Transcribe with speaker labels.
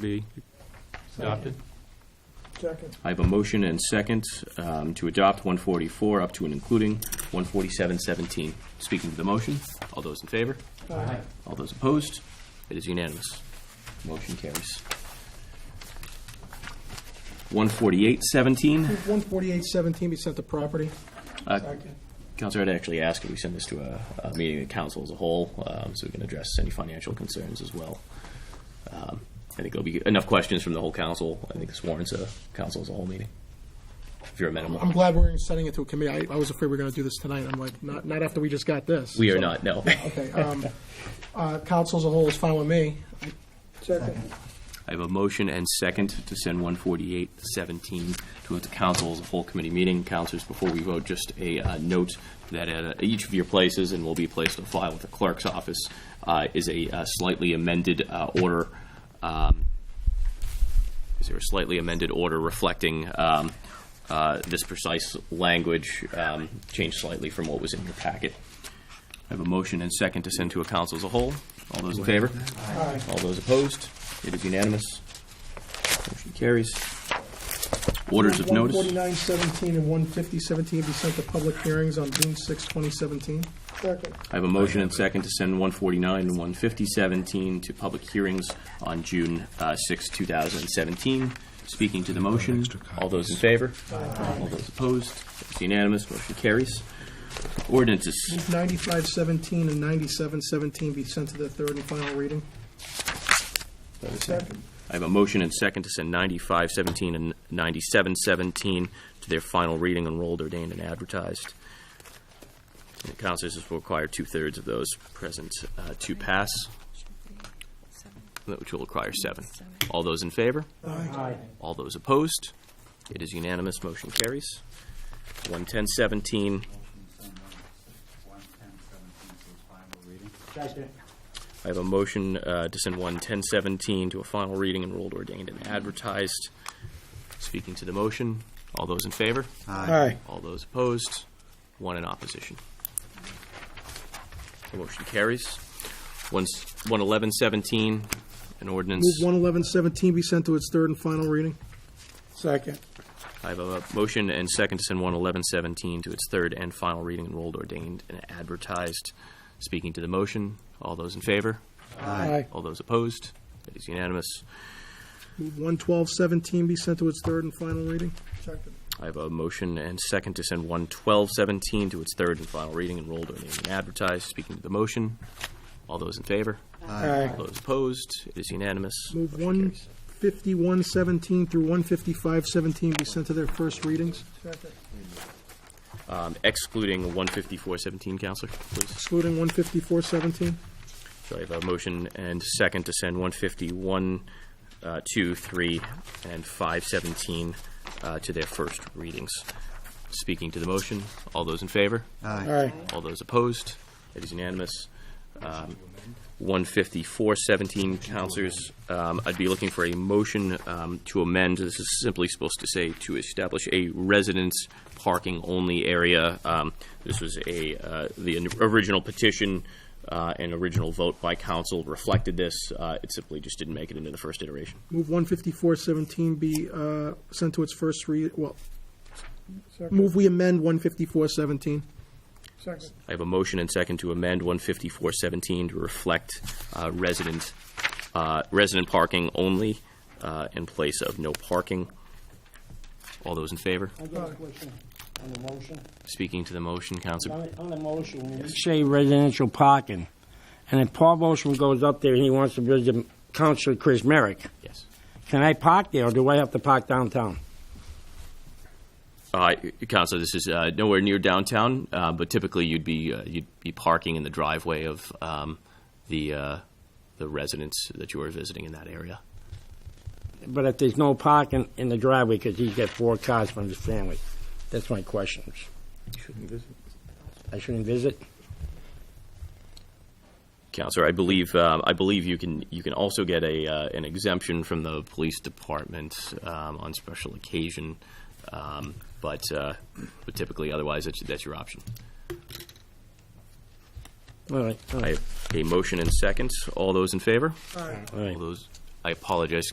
Speaker 1: be adopted.
Speaker 2: Second.
Speaker 3: I have a motion and second um, to adopt 144 up to and including 14717. Speaking to the motion, all those in favor?
Speaker 2: Aye.
Speaker 3: All those opposed? It is unanimous. Motion carries. 14817,
Speaker 2: One forty-eight seventeen be sent to property.
Speaker 3: Uh, Counselor, I'd actually ask if we send this to a, a meeting of council as a whole, um, so we can address any financial concerns as well. Um, I think there'll be enough questions from the whole council. I think this warrants a council as a whole meeting, if you're amenable.
Speaker 2: I'm glad we're setting it to a committee. I, I was afraid we were gonna do this tonight. I'm like, not, not after we just got this.
Speaker 3: We are not, no.
Speaker 2: Okay, um, uh, council as a whole is fine with me. Second.
Speaker 3: I have a motion and second to send 14817 to the council as a full committee meeting. Councilors, before we vote, just a uh, note that at uh, each of your places, and will be placed on file with the clerk's office, uh, is a uh, slightly amended uh, order. um, Is there a slightly amended order reflecting um, uh, this precise language, um, changed slightly from what was in your packet? I have a motion and second to send to a council as a whole. All those in favor?
Speaker 2: Aye.
Speaker 3: All those opposed? It is unanimous. Motion carries. Orders of
Speaker 2: One
Speaker 3: notice.
Speaker 2: forty-nine seventeen and one fifty seventeen be sent to public hearings on June sixth, twenty seventeen. Second.
Speaker 3: I have a motion and second to send 149 and 15017 to public hearings on June uh, 6, 2017. Speaking to the motion, all those in favor? All those opposed? It's unanimous. Motion carries. Ordinances.
Speaker 2: Ninety-five seventeen and ninety-seven seventeen be sent to the third and final reading. Second.
Speaker 3: I have a motion and second to send 9517 and 9717 to their final reading, enrolled, ordained, and advertised. And The councilors will require two-thirds of those present uh, to pass, which will require seven. All those in favor?
Speaker 2: Aye.
Speaker 3: All those opposed? It is unanimous, motion carries. 11017, I have a motion uh, to send 11017 to a final reading, enrolled, ordained, and advertised. Speaking to the motion, all those in favor?
Speaker 2: Aye.
Speaker 3: All those opposed, one in opposition. The motion carries. One's- 11117, an
Speaker 2: Move
Speaker 3: ordinance.
Speaker 2: one eleven seventeen be sent to its third and final reading. Second.
Speaker 3: I have a oh motion and second to send 11117 to its third and final reading, enrolled, ordained, and advertised. Speaking to the motion, all those in favor?
Speaker 2: Aye.
Speaker 3: All those opposed? It is unanimous.
Speaker 2: Move one twelve seventeen be sent to its third and final reading. Second.
Speaker 3: I have a motion and second to send 11217 to its third and final reading, enrolled, ordained, and advertised. Speaking to the motion, all those in favor?
Speaker 2: Aye.
Speaker 3: All those opposed? It is unanimous.
Speaker 2: Move
Speaker 3: Motion
Speaker 2: one
Speaker 3: carries.
Speaker 2: fifty-one seventeen through one fifty-five seventeen be sent to their first readings. Second.
Speaker 3: Um, Excluding 15417, Counselor, please.
Speaker 2: Excluding one fifty-four seventeen.
Speaker 3: So I have a motion and second to send 151, uh, 2, 3, and 517 uh, to their first readings. Speaking to the motion, all those in favor?
Speaker 2: Aye.
Speaker 3: All those opposed? It is unanimous. Um, 15417, counselors, um, I'd be looking for a motion um, to amend, this is simply supposed to say to establish a residence parking-only area. Um, This was a, uh, the original petition uh, and original vote by council reflected this. Uh, It simply just didn't make it into the first iteration.
Speaker 2: Move one fifty-four seventeen be, uh, sent to its first read, well, move we amend one fifty-four seventeen. Second.
Speaker 3: I have a motion and second to amend 15417 to reflect uh, resident, uh, resident parking only uh, in place of no parking. All those in favor?
Speaker 4: I got a question on the motion.
Speaker 3: Speaking to the motion, Counselor.
Speaker 4: On on the motion, when you say residential parking, and if Paul Motion goes up there and he wants to visit Councilor Chris Merrick,
Speaker 3: Yes.
Speaker 4: can I park there, or do I have to park downtown?
Speaker 3: Uh, Counselor, this is uh, nowhere near downtown, uh, but typically you'd be, uh, you'd be parking in the driveway of um, the, uh, the residents that you are visiting in that area.
Speaker 4: But if there's no parking in the driveway, because he's got four cars from his family, that's my question. I shouldn't visit?
Speaker 3: Counselor, I believe, um, I believe you can, you can also get a, uh, an exemption from the police department um, on special occasion, um, but uh, but typically, otherwise, that's, that's your option.
Speaker 4: All right, all
Speaker 3: I
Speaker 4: right,
Speaker 3: have a motion and seconds. All those in favor?
Speaker 4: all right.
Speaker 3: All those, I apologize,